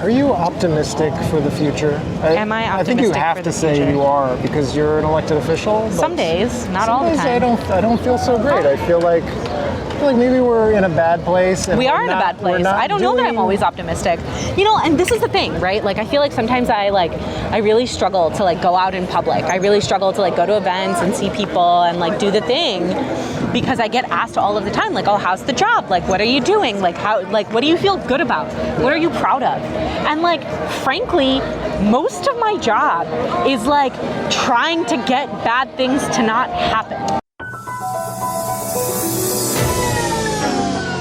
Are you optimistic for the future? I, Am I I think you optimistic have for to the say future? you are because you're an elected official. but Some days, not some all the days I time. don't. I don't feel so great. I feel like, I feel like maybe we're in a bad place. And we we're are in a not- bad we're place. not I don't know that I'm doing- always optimistic. You know, and this is the thing, right? Like I feel like sometimes I like I really struggle to like go out in public. I really struggle to like go to events and see people and like do the thing because I get asked all of the time like, "Oh, how's the job? Like what are you doing? Like how like what do you feel good about? What are you proud of?" And like frankly, most of my job is like trying to get bad things to not happen.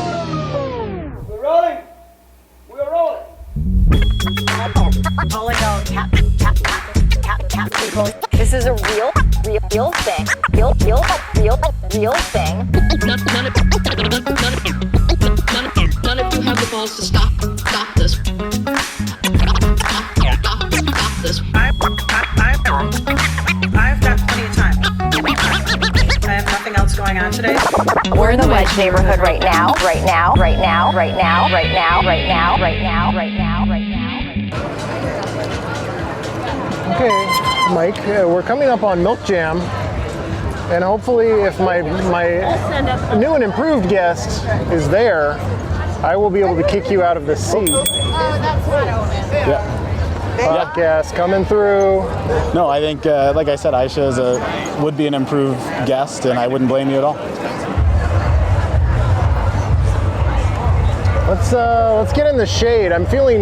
We're rolling. We're rolling. This is a real, real, real thing. Real, real, real, real thing. none, none, of, none, of, none, of, none, of, none of you have the balls to stop, stop this. Stop, stop, stop this. I've, I've, I've, I've got plenty of time. I have nothing else going on today. We're in the wedge neighborhood right now. Right now. Right now. Right now. Right now. Right now. Right now. Right now. Right now. Okay, Mike, uh, we're coming up on Milk Jam, and hopefully, if my my new and improved guest is there, I will be able to kick you out of the seat. Yeah. Podcast coming through. No, I think, uh, like I said, Aisha is a, would be an improved guest, and I wouldn't blame you at all. Let's uh, let's get in the shade. I'm feeling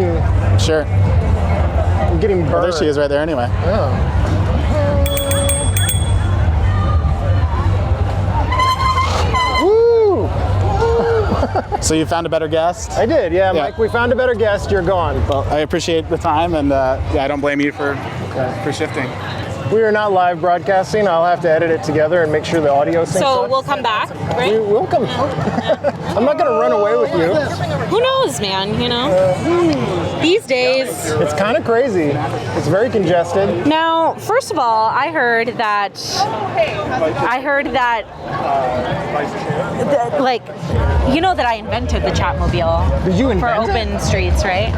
Sure. I'm getting burned. Well, Oh, there she is right there anyway. Woo! So you found a better guest. I did, yeah, Yeah. Mike. We found a better guest. You're gone. Well, I appreciate the time, and uh, yeah, I don't blame you for for shifting. We are not live broadcasting. I'll have to edit it together and make sure the audio syncs So up. we'll come back, right? We will come. I'm not gonna run away with you. Who knows, man? You know, these days. It's kind of crazy. It's very congested. Now, first of all, I heard that I heard that, that, like you know that I invented the Chatmobile Did you for invent open streets, right?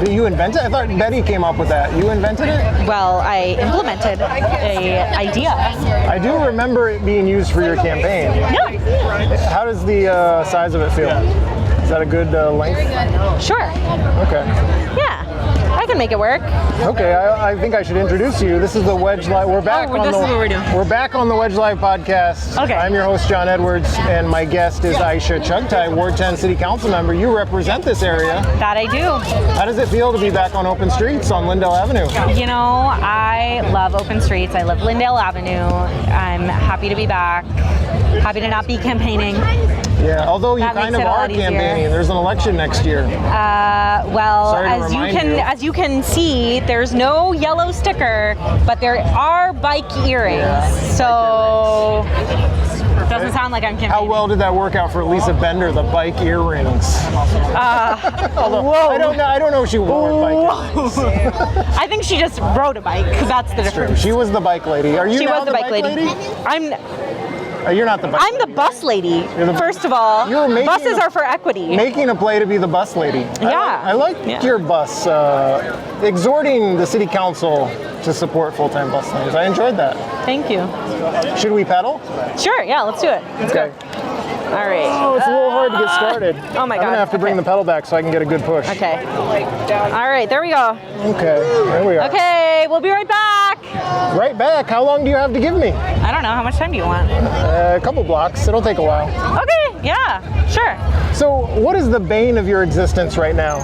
it? Did you invent it? I thought Betty came up with that. You invented it? Well, I implemented a idea. I do remember it being used for your campaign. Yeah, How does the uh, size of it feel? Is that a good uh, length? sure. Okay. Yeah, I can make it work. Okay, I, I think I should introduce you. This is the Wedge Live. We're back Oh, on this the is what we're doing. we're back on the Wedge Live podcast. Okay. I'm your host John Edwards, and my guest is Aisha Chugtai, Ward 10 City Council member. You represent this area. That I do. How does it feel to be back on open streets on Lindell Avenue? You know, I love open streets. I love Lindale Avenue. I'm happy to be back. Happy to not be campaigning. Yeah. Although you That kind makes of it a are lot easier. campaigning. There's an election next year. Uh, well, Sorry to as you remind can you. as you can see, there's no yellow sticker, but there are bike earrings. so doesn't sound like I'm How campaigning. Oh, well did that work out for Lisa Bender? The bike earrings. Uh, Although, whoa. I don't know. I don't know if she wore bike. earrings. I think she just rode a bike because that's the difference. She was the bike lady. Are you She now was the bike, lady. I'm Uh, You're not the bike. I'm the bus lady. You're the- First of all, You're making buses a- are for equity. making a play to be the bus lady. Yeah. I like, I like Yeah. your bus, uh, exhorting the city council to support full time bus lanes. I enjoyed that. Thank you. Should we pedal? Sure. Yeah. Let's do it. Let's Okay. go. All right. Oh, it's a little hard to get started. Oh my I'm gonna God. have to bring Okay. the pedal back so I can get a good push. Okay. All right. There we go. Okay, there we are. Okay. We'll be right back. Right back. How long do you have to give me? I don't know. How much time do you want? Uh, a couple blocks. It'll take a while. Okay, yeah, sure. So, what is the bane of your existence right now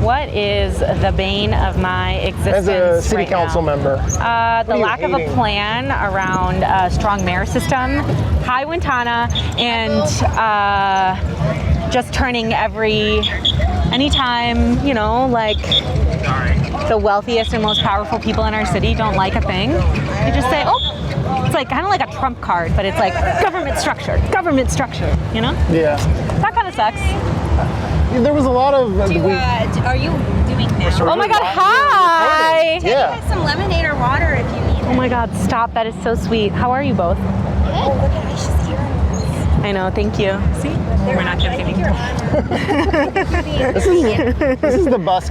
What is the bane of my existence? as a city right council now? member? Uh, the are you lack of a hating? plan around a strong mayor system, high Wintana, and uh, just turning every, anytime, you know, like the wealthiest and most powerful people in our city don't like a thing, they just say, oh, it's like kind of like a trump card, but it's like government structure, government structure, you know? Yeah. That kind of sucks. There was a lot of. uh, we- are you doing now? Oh my god, hi! yeah. Some lemonade or water if you need. Oh my god, stop. That is so sweet. How are you both? Oh, look at Aisha's here. I know, thank you. See? We're not I think you're on. This is the bus